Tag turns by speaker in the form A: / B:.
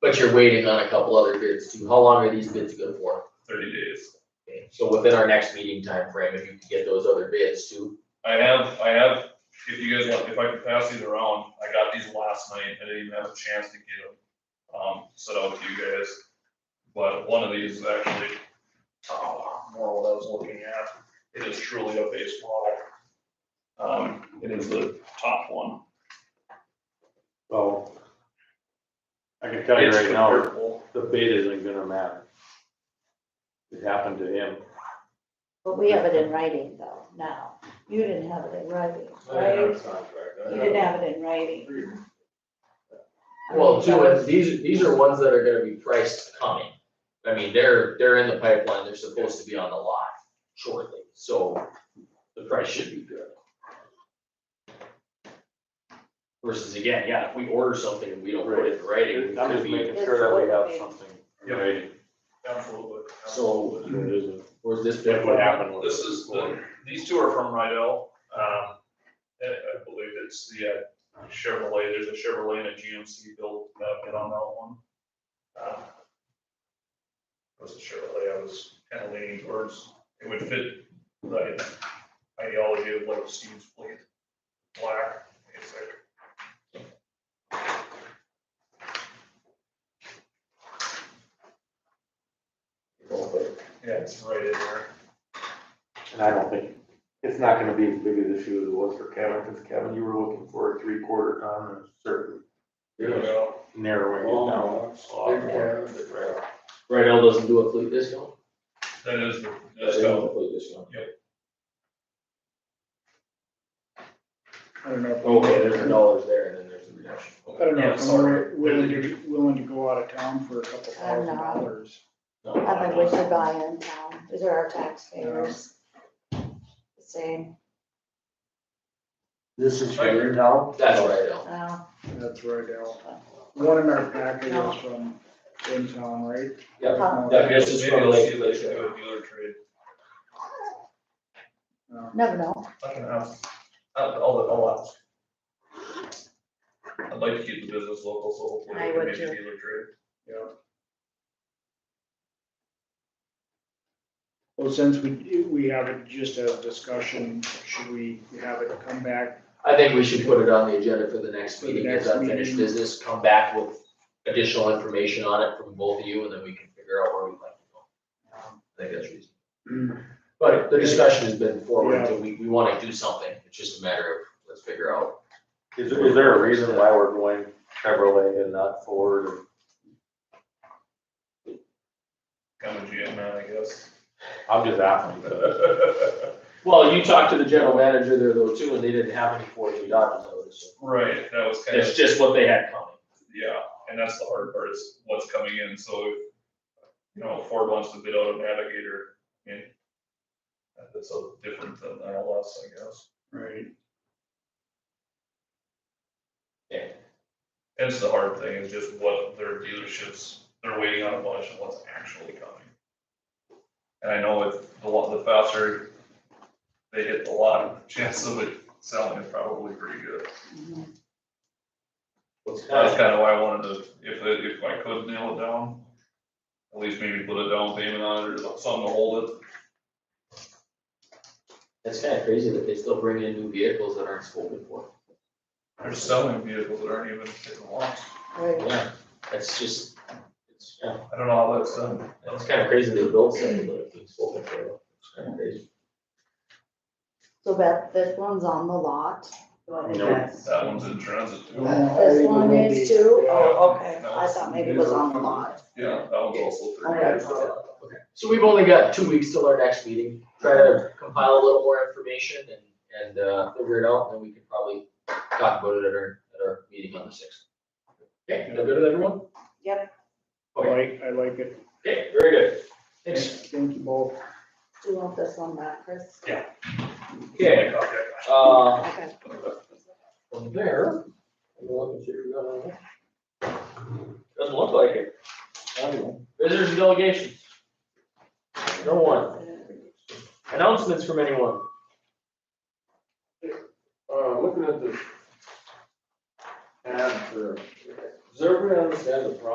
A: But you're waiting on a couple other bids too. How long are these bids good for?
B: thirty days.
A: Okay, So within our next meeting timeframe, if you can get those other bids too.
B: I have, I have, if you guys want, if I could pass these around, I got these last night, I didn't even have a chance to get them, um, set out to you guys. But one of these is actually, oh, more what I was looking at, it is truly a baseball. Um, it is the top one.
C: Well, I can tell you
B: It's
C: right
B: the
C: now,
B: purple.
C: the bid isn't gonna matter. It happened to him.
D: But we have it in writing though, now. You didn't have it in writing, right? You didn't have it in writing. I mean,
A: Well,
D: that
A: two,
D: was-
A: and these, these are ones that are gonna be priced coming. I mean, they're, they're in the pipeline. They're supposed to be on the lot shortly, so the price should be good. Versus again, yeah, if we order something and we don't put it in writing,
C: I'm
A: it could
C: just
A: be,
C: making sure that we have something.
B: Yep.
C: ready.
B: Absolutely.
A: so
C: It isn't-
A: where's this bid
C: That
A: from?
C: what happened was.
B: This is, the these two are from Rydell, um, I, I believe it's the uh, Chevrolet, there's a Chevrolet and a GMC built, uh, bid on that one. Uh, it Was a Chevrolet, I was kind of leaning towards, it would fit the ideology of like Steve's fleet, black, it's like. Yeah, it's right in there.
C: And I don't think, it's not gonna be as big of an issue as it was for Kevin, because Kevin, you were looking for a three quarter ton and certainly
B: There we go.
C: narrowing it down a
A: Oh,
C: lot more.
A: Right now doesn't do a fleet discount?
B: That is, the-
A: They
B: that's
A: don't
B: how,
A: do a fleet discount.
E: I don't know. if I'm-
A: Okay, there's a dollars there and then there's a reduction.
E: I don't know
B: Yeah,
E: if I'm
B: sorry.
E: willing- willing to, willing to go out of town for a couple
D: I'm
E: thousand
D: not.
E: dollars.
A: No,
D: I mean, we should buy in town. These are our taxpayers. Same,
F: This is for your town?
A: That's right, Al.
D: no,
E: That's right, Al. One in our package is from in town, right? Um,
A: Yep.
E: No,
A: That
B: maybe I'll
A: gets us
B: see,
A: from
B: like,
A: like,
B: do a dealer trade.
E: no.
D: never know.
B: I can ask, I'll, I'll, I'll ask. I'd like to keep the business local, so hopefully
D: I
B: we can
D: would
B: make a
D: too.
B: dealer trade.
E: Yeah. Well, since we, we have it just as discussion, should we have it come back?
A: I think we should put it on the agenda for the next
E: For the
A: meeting, as
E: next
A: unfinished
E: meeting.
A: business, come back with additional information on it from both of you, and then we can figure out where we'd like to go. I think that's reasonable. Mm-hmm. But the discussion has been forward, so we, we wanna do something, it's just a matter of, let's figure out.
C: Is, is there a reason why we're going Chevrolet and not Ford or
B: Kind of GM man, I guess.
C: I'm just asking, but
A: Well, you talked to the general manager there though too, and they didn't have any four G Dodges, I would assume.
B: Right, that was kind
A: It's
B: of,
A: just what they had coming.
B: yeah, and that's the hard part is what's coming in, so if, you know, Ford wants to bid out a Navigator, I mean, that's a different than an LS, I guess.
E: Right.
B: That's the hard thing, is just what their dealerships, they're waiting on a bunch and what's actually coming. And I know if the lot, the faster they hit the lot, the chance of it selling is probably pretty good. That's kind of why I wanted to, if, it- if I could nail it down, at least maybe put a down payment on it or something to hold it.
A: It's kinda crazy that they still bring in new vehicles that aren't spoken for.
B: They're selling vehicles that aren't even hitting lots.
D: Right.
A: Yeah, that's just, it's, yeah.
B: I don't know how that's done.
A: It's kind of crazy they built something, but it's spoken for, it's kind of crazy.
D: So that, this one's on the lot.
C: Nope.
B: That one's in transit too.
D: Uh, This one is too? Oh, okay.
B: No.
D: I thought maybe it was on the lot.
B: Yeah, that one's also. pretty
D: Okay.
B: good.
A: Okay, so we've only got two weeks till our next meeting, try to compile a little more information and, and, uh, figure it out, and then we can probably talk about it at our, at our meeting on the sixth. Okay, is that good with everyone?
D: Yep,
E: I
A: Oh,
E: like, I like it.
A: Okay, very good. Thanks.
E: Thank you both.
D: do you want this one back, Chris?
A: Okay, uh,
D: Okay.
A: from there, I'm gonna look and see if we got anything. Doesn't look like it. Visitors and delegations. No one. Announcements from anyone?
F: Uh, looking at this. ad for, does everybody understand the problem